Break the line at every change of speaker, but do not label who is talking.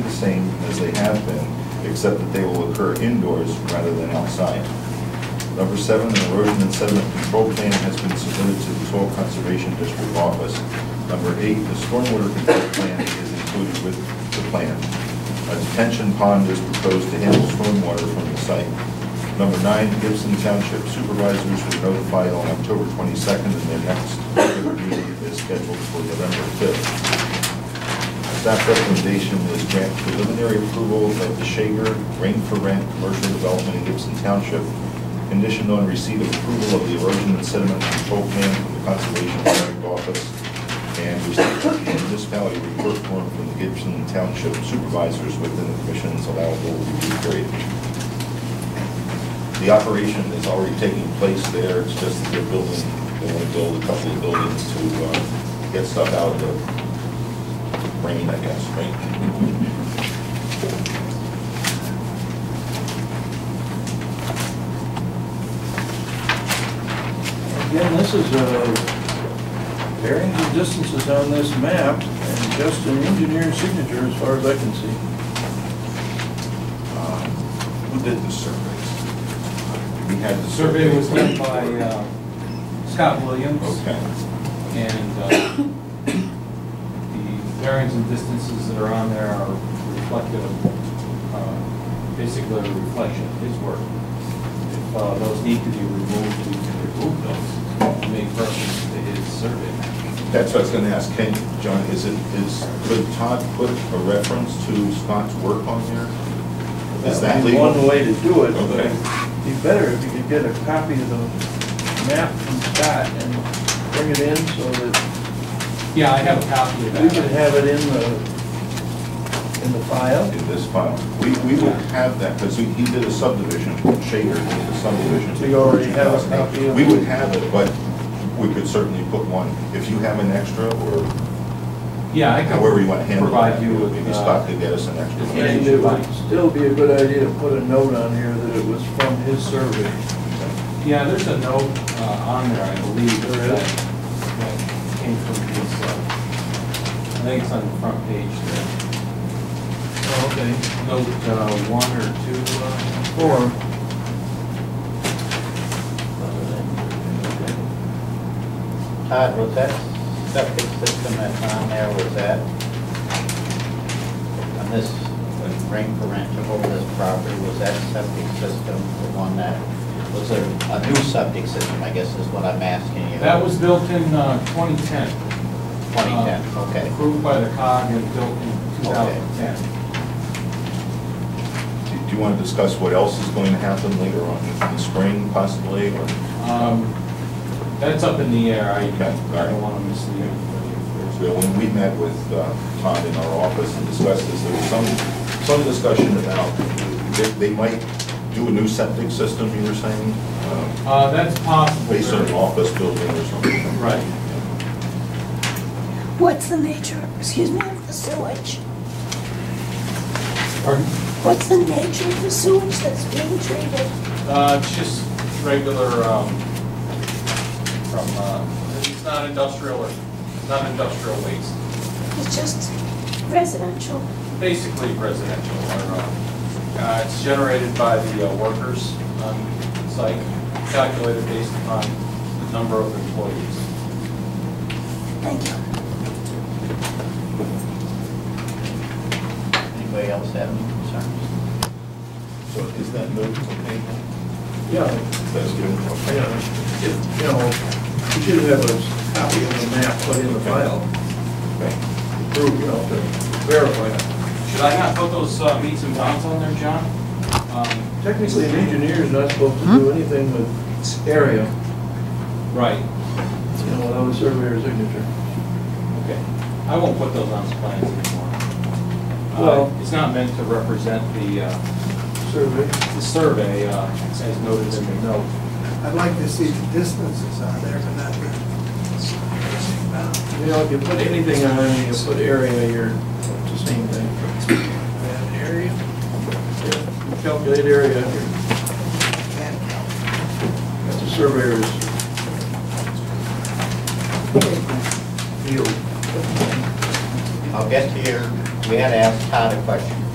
same as they have been, except that they will occur indoors rather than outside. Number seven, an erosion and sediment control plan has been submitted to the Soil Conservation District Office. Number eight, the stormwater control plan is included with the plan. A detention pond is proposed to handle stormwater from the site. Number nine, Gibson Township supervisors were notified on October 22nd, and their next regular meeting is scheduled for November 5th. Staff recommendation is grant preliminary approval of the Shager Rain for Rent Commercial Development in Gibson Township, conditioned on receipt of approval of the erosion and sediment control plan from the Conservation District Office, and receipt of the municipality report form from the Gibson Township supervisors within the commission's allowable review period. The operation is already taking place there, it's just that they're building, they want to build a couple of buildings to uh, get stuff out of the rain, I guess, right?
Again, this is a bearings and distances on this map, and just an engineer's signature as far as I can see.
Um, Who did the surveys? We had the
The
survey.
survey was done by uh, Scott Williams,
Okay.
and uh, the bearings and distances that are on there are reflective, uh, basically a reflection of his work. If uh, those need to be removed, we can remove those, make reference to his survey map.
That's what I was going to ask, can, John, is it, is, could Todd put a reference to Scott's work on there? Is that
would be
legal?
One way to do it, but
Okay.
it'd be better if you could get a copy of the map from Scott and bring it in so that
Yeah, I have a copy of that.
we could have it in the, in the file.
in this file. We, we will have that, because he he did a subdivision, Shaker did a subdivision.
So you already have a copy of it?
We would have it, but we could certainly put one, if you have an extra, or
Yeah, I
however you want to
can
handle it.
provide you with.
Maybe
uh,
Scott could get us an extra.
Yeah.
one.
And it would still be a good idea to put a note on here that it was from his survey.
Yeah, there's a note uh, on there, I believe.
There is?
that- That came from his, uh, I think it's on the front page there.
Oh, okay.
Note uh, one or two. uh,
Form.
Todd, was that septic system that's on there, was that on this, when Ring Parent took over this property, was that septic system the one that, was there a new septic system, I guess is what I'm asking you?
That was built in uh, 2010.
2010,
Uh,
okay.
Approved by the COG and built in 2010.
Do- Do you want to discuss what else is going to happen later on in the spring possibly, or?
Um, That's up in the air, I
Okay, all
I
right.
don't want to mislead anybody. if
So when we met with uh, Todd in our office and discussed this, there was some, some discussion about, they, they might do a new septic system, you were saying? um,
there's- Uh, That's possible.
based on an office building or something.
Right.
What's the nature, excuse me, of the sewage?
Pardon?
What's the nature of the sewage that's being treated?
Uh, it's just regular, um, from, uh, it's not industrial or, not industrial waste,
It's just residential.
basically residential or, uh, uh, it's generated by the uh, workers on site, calculated based upon the number of employees.
Thank you.
Anybody else have any concerns?
So is that moved to table?
Yeah.
That's good.
I know, if, you know, you should have a copy of the map put in the file,
Okay.
to prove, you know, to verify it.
Should I not put those uh, meets and bounds on there, John? Um,
Technically, an engineer is not supposed to do anything with area,
Right,
you know, without a surveyor's signature.
okay. I won't put those on the plans anymore. Uh,
Well-
It's not meant to represent the, uh,
Survey,
the survey, uh, as noted in the note.
I'd like to see the distances on there, but not the.
you know, if you put anything on it, you put area, you're, it's the same thing.
An area
You Calculate area, you're-
and
that's a surveyor's field.
I'll get to your, we had to ask Todd a question.